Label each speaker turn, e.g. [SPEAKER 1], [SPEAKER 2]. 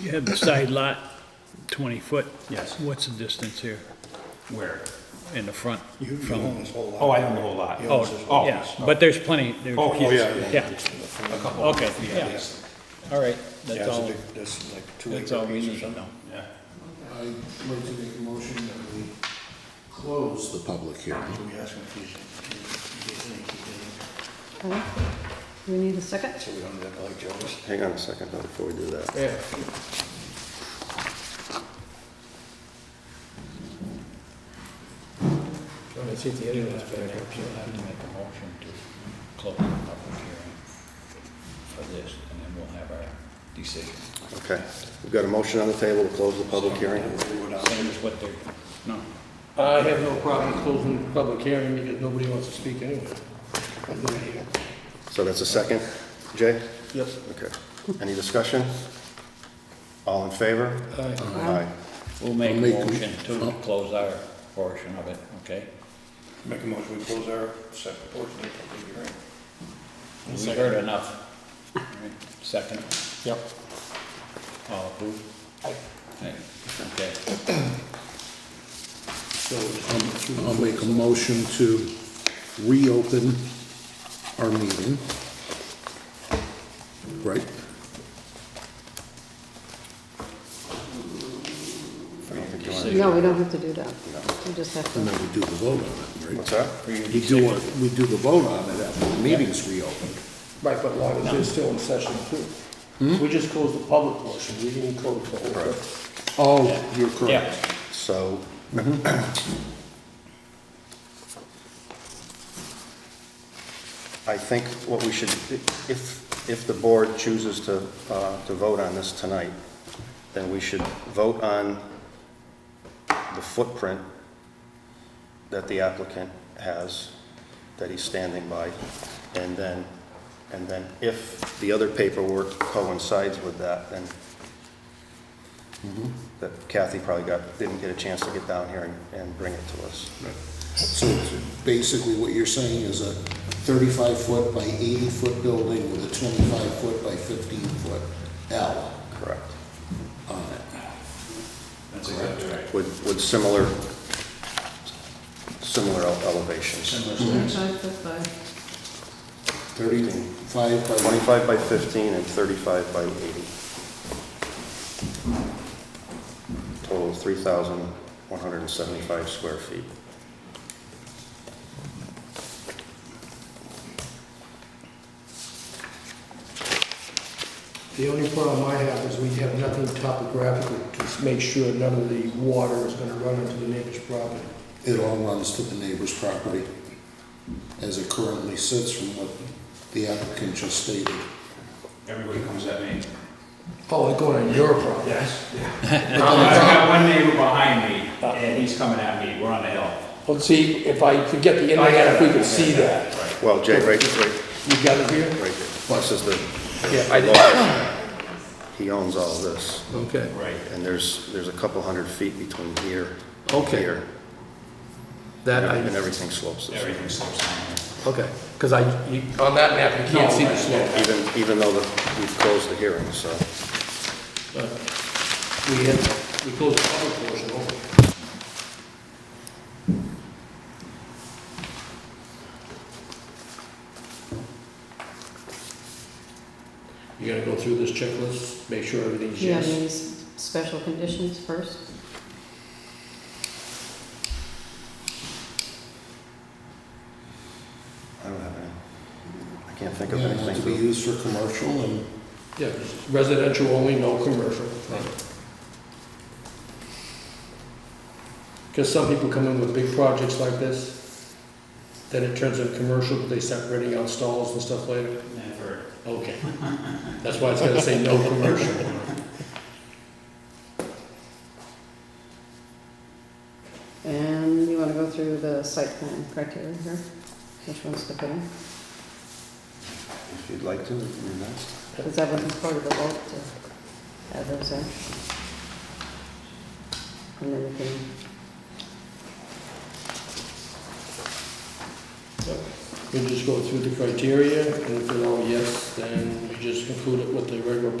[SPEAKER 1] You have the side lot, 20 foot.
[SPEAKER 2] Yes.
[SPEAKER 1] What's the distance here
[SPEAKER 2] Where?
[SPEAKER 1] in the front?
[SPEAKER 3] You you
[SPEAKER 1] from-
[SPEAKER 3] own this whole lot.
[SPEAKER 2] Oh, I own the whole lot.
[SPEAKER 1] Oh,
[SPEAKER 2] Oh,
[SPEAKER 1] yeah, but there's plenty, there,
[SPEAKER 2] Oh,
[SPEAKER 3] Oh,
[SPEAKER 2] yes.
[SPEAKER 3] yeah.
[SPEAKER 1] yeah,
[SPEAKER 3] A couple.
[SPEAKER 1] okay, yeah, all
[SPEAKER 3] Yeah,
[SPEAKER 1] right, that's
[SPEAKER 3] it's a
[SPEAKER 1] all,
[SPEAKER 3] big, that's like two
[SPEAKER 1] that's
[SPEAKER 3] acre
[SPEAKER 1] all we
[SPEAKER 3] piece or
[SPEAKER 1] need to
[SPEAKER 3] something.
[SPEAKER 1] know.
[SPEAKER 2] Yeah.
[SPEAKER 4] I'd like to make a motion that we close the public hearing.
[SPEAKER 3] So we ask him if he's, if he's in, he's
[SPEAKER 5] Okay. Do we need a second?
[SPEAKER 3] in, so we don't end up like Joe's.
[SPEAKER 6] Hang on a second though, before we do that.
[SPEAKER 1] You'll have to make you'll have to make a motion to close the public hearing for this, and then we'll have our decision.
[SPEAKER 6] Okay, we've got a motion on the table to close the public hearing.
[SPEAKER 1] Same as what they're, no,
[SPEAKER 7] I have no problem closing the public hearing because nobody wants to speak anyway. I'm not here.
[SPEAKER 6] So that's a second. Jay?
[SPEAKER 7] Yes.
[SPEAKER 6] Okay. Any discussion? All in favor? Aye.
[SPEAKER 1] we'll make a
[SPEAKER 4] I'll make a-
[SPEAKER 1] motion to close our portion of it, okay?
[SPEAKER 3] Make a motion, we close our separate portion of the public hearing.
[SPEAKER 1] We heard enough. All right, Second? Yep. All approved? Aye. Okay,
[SPEAKER 4] I'll make a motion to reopen our meeting. Right?
[SPEAKER 5] No, we don't have to do that. We just have
[SPEAKER 4] And
[SPEAKER 5] to,
[SPEAKER 4] then we do the vote on it,
[SPEAKER 6] What's
[SPEAKER 4] right?
[SPEAKER 6] that?
[SPEAKER 4] We do, a- we do the vote on it after the meeting's reopened.
[SPEAKER 7] Right, but long as they're still in session
[SPEAKER 4] Hmm?
[SPEAKER 7] too. We just closed the public portion, we didn't close the whole thing.
[SPEAKER 4] Oh, you're
[SPEAKER 1] yeah,
[SPEAKER 4] correct.
[SPEAKER 6] So, I think what we should, if, if the board chooses to, uh, to vote on this tonight, then we should vote on the footprint that the applicant has, that he's standing by, and then, and then if the other paperwork coincides with that, then that Kathy probably got, didn't get a chance to get down here and, and bring it to us.
[SPEAKER 4] So basically what you're saying is a thirty-five foot by eighty foot building with a twenty-five foot by fifteen foot L
[SPEAKER 6] Correct.
[SPEAKER 4] on it.
[SPEAKER 2] That's exactly right.
[SPEAKER 6] With, with similar, similar ele- elevations.
[SPEAKER 4] Thirty-five by
[SPEAKER 6] Twenty-five by fifteen and thirty-five by eighty. Total of three thousand one hundred and seventy-five square feet.
[SPEAKER 7] The only problem I have is we have nothing topographical to make sure none of the water is gonna run into the neighbor's property.
[SPEAKER 4] It all runs to the neighbor's property as it currently sits from what the applicant just stated.
[SPEAKER 2] Everybody comes at me.
[SPEAKER 7] Oh, they're going on your property?
[SPEAKER 2] Yes. I've got one neighbor behind me, and he's coming at me, we're on the hill.
[SPEAKER 7] Let's see, if I could get the internet, if we could see that.
[SPEAKER 6] Well, Jay, right, right,
[SPEAKER 7] You got it here?
[SPEAKER 6] right here. This is
[SPEAKER 7] Yeah, I
[SPEAKER 6] the, he owns all this.
[SPEAKER 4] Okay.
[SPEAKER 2] Right.
[SPEAKER 6] And there's, there's a couple hundred feet between here and
[SPEAKER 8] Okay.
[SPEAKER 6] here.
[SPEAKER 8] That
[SPEAKER 6] And
[SPEAKER 8] I,
[SPEAKER 6] everything slopes this way.
[SPEAKER 2] Everything slips down.
[SPEAKER 8] okay, because I, you- on that map, you can't see the slope.
[SPEAKER 6] Even, even though the- we've closed the hearing, so,
[SPEAKER 7] We had, we closed the public portion over. You gotta go through this checklist, make sure everything's
[SPEAKER 5] yeah,
[SPEAKER 7] yes.
[SPEAKER 5] these special conditions first.
[SPEAKER 6] I don't have any, I can't think of
[SPEAKER 4] Yeah, and to be
[SPEAKER 6] anything.
[SPEAKER 4] used for commercial and
[SPEAKER 7] Yeah, residential only, no commercial. Because some people come in with big projects like this, then it turns into commercial, but they start renting out stalls and stuff later.
[SPEAKER 2] Never.
[SPEAKER 7] Okay. That's why it's gonna say no commercial.
[SPEAKER 5] And you wanna go through the site plan criteria here, which ones to put in?
[SPEAKER 6] If you'd like to, you're next.
[SPEAKER 5] Because that wasn't part of the vote to add those in. And then we can,
[SPEAKER 7] We just go through the criteria, and if they're all yes, then we just conclude it with the regular